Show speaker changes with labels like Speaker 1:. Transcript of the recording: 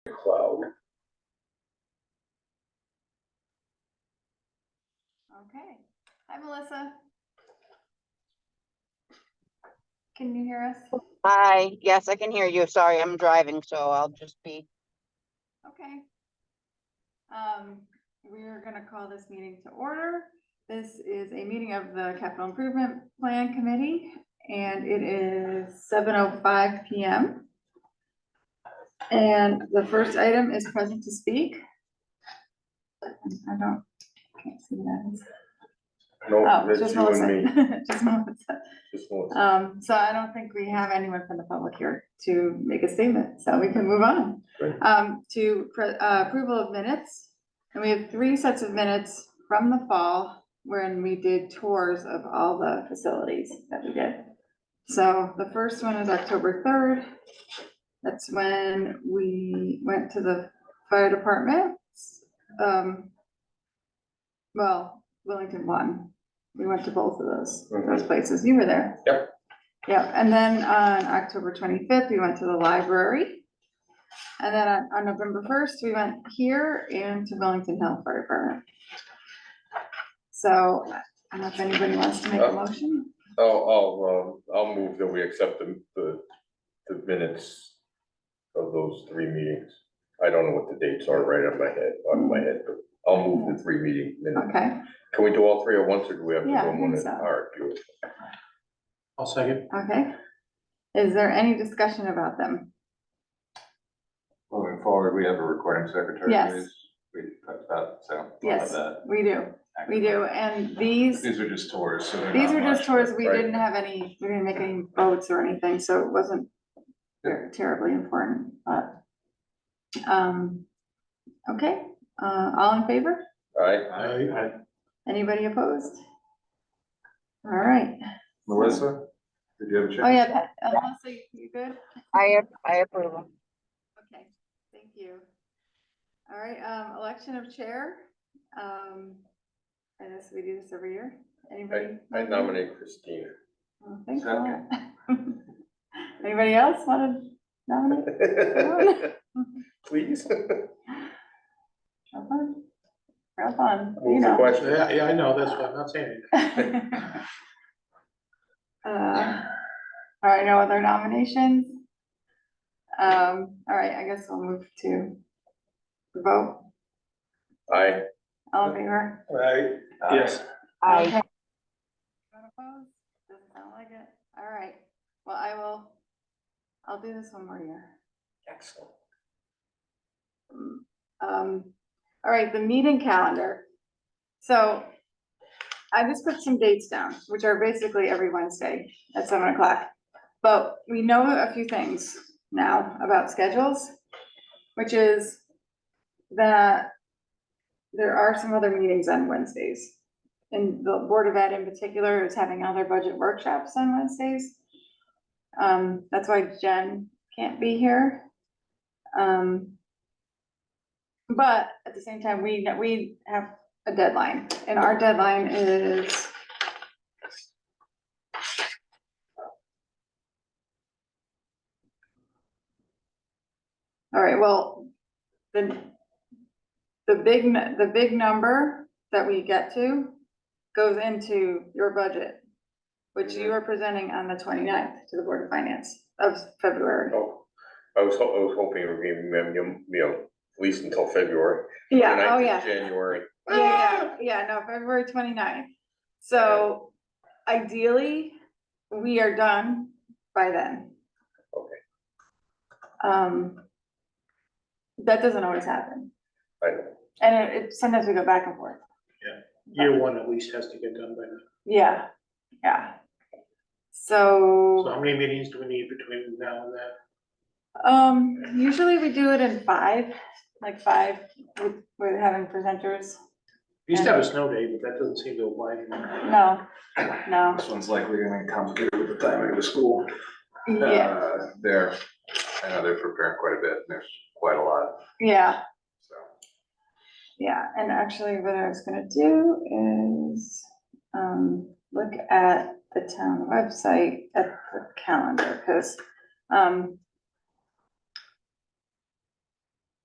Speaker 1: cloud.
Speaker 2: Okay. Hi, Melissa. Can you hear us?
Speaker 3: Hi, yes, I can hear you. Sorry, I'm driving, so I'll just be,
Speaker 2: Okay. Um, we're gonna call this meeting to order. This is a meeting of the Capital Improvement Plan Committee, and it is seven oh five P M. And the first item is present to speak. I don't, can't see that.
Speaker 1: No,
Speaker 2: Oh,
Speaker 1: that's
Speaker 2: just
Speaker 1: you and me,
Speaker 2: Melissa. Just Melissa.
Speaker 1: just Melissa.
Speaker 2: Um, so I don't think we have anyone from the public here to make a statement, so we can move on.
Speaker 1: Great.
Speaker 2: Um, to pre- uh, approval of minutes, and we have three sets of minutes from the fall when we did tours of all the facilities that we did. So the first one is October third. That's when we went to the fire department. Um, well, Wellington one. We went to both of those, those places. You were there.
Speaker 1: Yep.
Speaker 2: Yep, and then on October twenty-fifth, we went to the library. And then on, on November first, we went here and to Wellington Hill Fire Department. So, I don't know if anybody wants to make a
Speaker 1: Uh,
Speaker 2: motion.
Speaker 1: I'll, I'll, um, I'll move that we accept the, the, the minutes of those three meetings. I don't know what the dates are right on my head, on my head, but I'll move the three meeting minutes.
Speaker 2: Okay.
Speaker 1: Can we do all three at once or do we have to do
Speaker 2: Yeah, I
Speaker 1: them one
Speaker 2: think
Speaker 1: at?
Speaker 2: so.
Speaker 1: All right, beautiful.
Speaker 4: I'll second.
Speaker 2: Okay. Is there any discussion about them?
Speaker 5: Moving forward, we have a recording secretary.
Speaker 2: Yes.
Speaker 5: please. We talked about, so. we'll have
Speaker 2: Yes,
Speaker 5: that.
Speaker 2: we do, we do, and these,
Speaker 5: These are just tours, so they're
Speaker 2: these
Speaker 5: not
Speaker 2: are just
Speaker 5: much,
Speaker 2: tours, we
Speaker 1: right.
Speaker 2: didn't have any, we didn't make any votes or anything, so it wasn't ter- terribly important, but. Um, okay, uh, all in favor?
Speaker 1: All right,
Speaker 4: I,
Speaker 2: Anybody opposed? All right,
Speaker 5: Melissa, did you have a
Speaker 2: oh
Speaker 5: chance?
Speaker 2: yeah, Pat, uh, Melissa, you- you good?
Speaker 3: I, ap- I approve. 'em.
Speaker 2: Okay, thank you. All right, um, election of chair. Um, I guess we do this every year. Anybody?
Speaker 1: I, I nominate Christina.
Speaker 2: Oh, Thanks a lot. Anybody else want to nominate?
Speaker 1: Please,
Speaker 2: Have fun. Have fun, you
Speaker 1: move the question.
Speaker 4: yeah, yeah, I know, that's why I'm not saying anything.
Speaker 2: know. Uh, All right, no other nominations? Um, all right, I guess we'll move to the vote.
Speaker 1: Aye,
Speaker 2: All in favor?
Speaker 4: Right,
Speaker 5: Uh,
Speaker 4: yes.
Speaker 3: I,
Speaker 2: Okay. Anyone opposed? Doesn't sound like it. All right. Well, I will, I'll do this one more year.
Speaker 1: excellent.
Speaker 2: Um, all right, the meeting calendar. So I just put some dates down, which are basically every Wednesday at seven o'clock. But we know a few things now about schedules, which is that there are some other meetings on Wednesdays. And the Board of Ed in particular is having other budget workshops on Wednesdays. Um, that's why Jen can't be here. Um, but at the same time, we, we have a deadline, and our deadline is. All right, well, the, the big, n- the big number that we get to goes into your budget, which you are presenting on the 29th to the Board of Finance of February.
Speaker 1: Oh, I was, ho- I was hoping it would be, um, you know, at least until February.
Speaker 2: Yeah, oh,
Speaker 1: 29th of
Speaker 2: yeah.
Speaker 1: January.
Speaker 2: Yeah, yeah, yeah, no, February 29th. So ideally, we are done by then. Okay. Um, that doesn't always happen.
Speaker 1: I know.
Speaker 2: And it, it- sometimes we go back and forth.
Speaker 4: Year one at least has to get done by now.
Speaker 2: Yeah, yeah.
Speaker 4: So how many meetings do we need between now and then?
Speaker 2: Um, usually we do it in five, like five with, with having presenters.
Speaker 4: We used to have a snow day, but that doesn't seem to apply anymore.
Speaker 2: No,
Speaker 1: Ah!
Speaker 2: no,
Speaker 5: This one's likely gonna be complicated with the timing of the school.
Speaker 2: yeah,
Speaker 5: Uh, They're, I know they're preparing quite a bit, and there's quite a lot,
Speaker 2: yeah.
Speaker 5: so.
Speaker 2: Yeah, and actually what I was gonna do is, um, look at the town website at the calendar, cause, um,